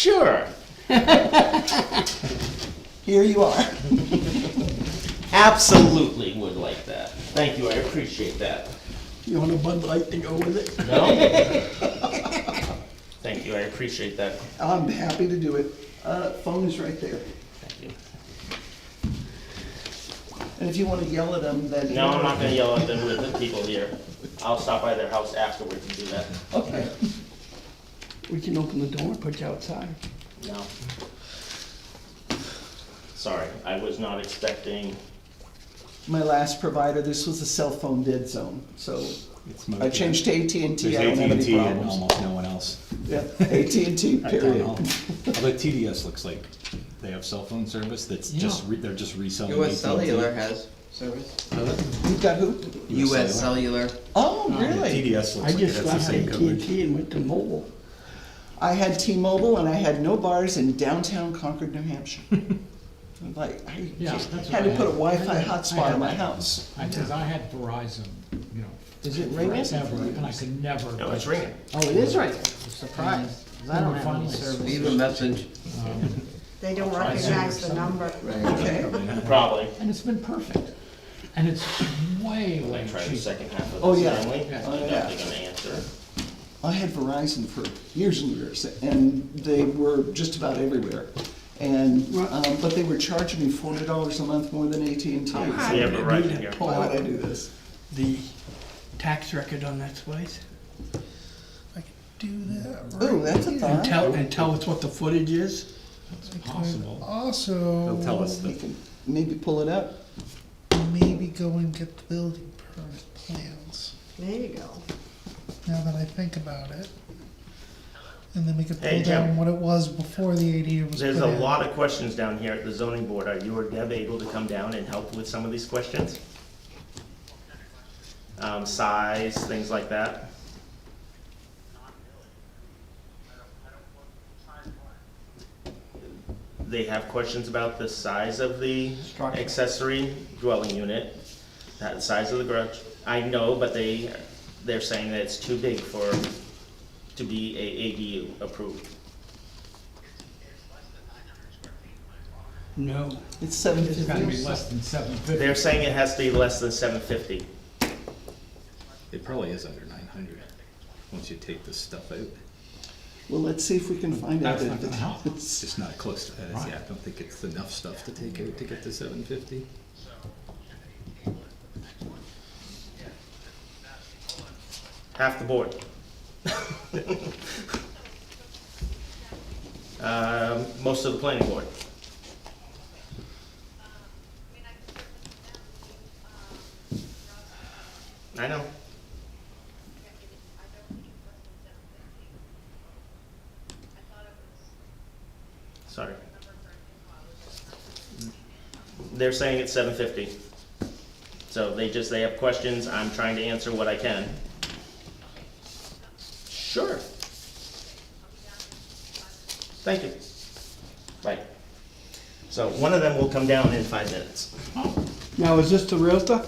Sure. Here you are. Absolutely would like that. Thank you, I appreciate that. You want a Bud Light to go with it? No? Thank you, I appreciate that. I'm happy to do it. Uh, phone is right there. Thank you. And if you wanna yell at them, then. No, I'm not gonna yell at them with the people here. I'll stop by their house afterwards and do that. Okay. We can open the door and put you outside. No. Sorry, I was not expecting, My last provider, this was a cell phone dead zone, so I changed to AT&T. There's I E don't have any AT&T and problems. almost no one else. Yeah, AT&T, at town hall. period. Although TDS looks like they have cell phone service that's just, re- they're just reselling. US AT&T. Cellular has service. You've got who? US Cellular. Oh, Yeah, really? TDS I looks like it just has the left same coverage. AT&T and went to mobile. I had T-Mobile and I had no bars in downtown Concord, New Hampshire. I'm Like, I Yeah, just that's had what to I put a had. I Wi-Fi had- I hotspot had in my that. house. I, cause I had Verizon, you know. Is it ringing? Forever, and I could never. no, it's ringing. Oh, it is right. Surprise. I don't have any service. Leave a message. They don't recognize the number. Okay. Probably. And it's been perfect. And it's way, way Try the cheap. second half of Oh, this, yeah. Stanley. Yeah. I'm definitely gonna answer. I had Verizon for years and years, and they were just about everywhere. And, um, but they were charging me forty dollars a month more than AT&T. So We have Why Yeah. Verizon here. would I do this? The tax record on that place. I could do that right. Ooh, that's a And thought. tell, and tell us what the footage is. It's possible. Also, They'll tell us We the can maybe pull it up. maybe go and get the building permit plans, There you go. now that I think about it. And then we could Hey, pull Jim. down what it was before the ADU was put There's a in. lot of questions down here at the zoning board. Are you or Deb able to come down and help with some of these questions? Um, size, things like that? They have questions about the size of the Structure. accessory dwelling unit, that the size of the garage. I know, but they, they're saying that it's too big for, to be a ADU approved. No. It's seven It's gotta be fifty. less than seven fifty. They're saying it has to be less than seven fifty. It probably is under nine hundred, once you take this stuff out. Well, let's see if we can find out. That's if not gonna it's- help. It's it's- just not close to that, is it? Right. yeah, I don't think it's enough stuff to take out to get to seven fifty. Half the board. Um, Most of the planning board. I know. Sorry. They're saying it's seven fifty. So they just, they have questions, I'm trying to answer what I can. Sure. Thank you. Right. So one of them will come down in five minutes. Now, is this the realtor?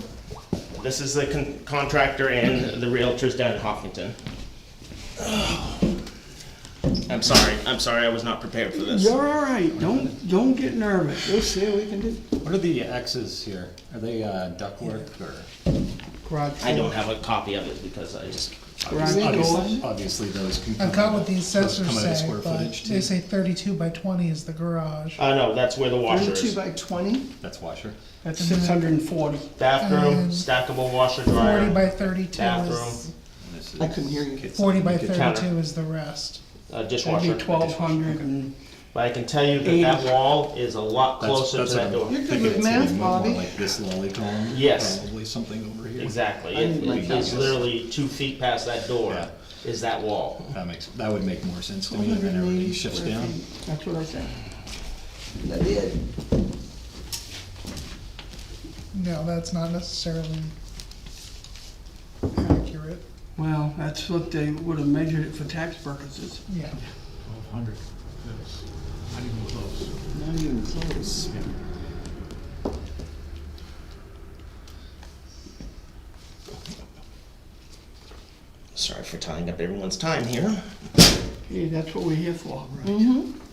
This is the con- contractor and the realtors down in Hopkinton. I'm sorry, I'm sorry, I was not prepared for this. You're all right. Don't, don't get nervous. We'll see what we can do. What are the X's here? Are they uh, ductwork or? Garage I don't door. have a copy of it because I just, Garage Obviously, door. obviously those can come. I've got out what the of- assessors come out of say, square but footage, they too. say thirty-two by twenty is the garage. uh, no, that's where the washer Thirty-two is. by twenty? That's washer. That's six hundred and forty. Bathroom, Um, stackable washer Forty dryer, by thirty-two is, bathroom, And this I is couldn't hear you. kids' forty by kitchen. counter. thirty-two is the rest. uh, That'd dishwasher. be twelve hundred and, But I can tell you that that wall is a lot That's- closer to that's what that I'm door. You're good thinking with it's gonna math, be more Bobby. Like this lolly column. Yes. Probably something over here. Exactly, I need It- my it's glasses. literally two feet past that door Yeah. is that wall. That makes, that would make more sense to me, and then everybody shifts down. that's what I said. That it. No, that's not necessarily accurate, Well, that's what they would have measured it for tax purposes. yeah. Twelve hundred. Not even close. Not even close. Sorry for tying up everyone's time here. Hey, that's what we're here for. Mm-hmm.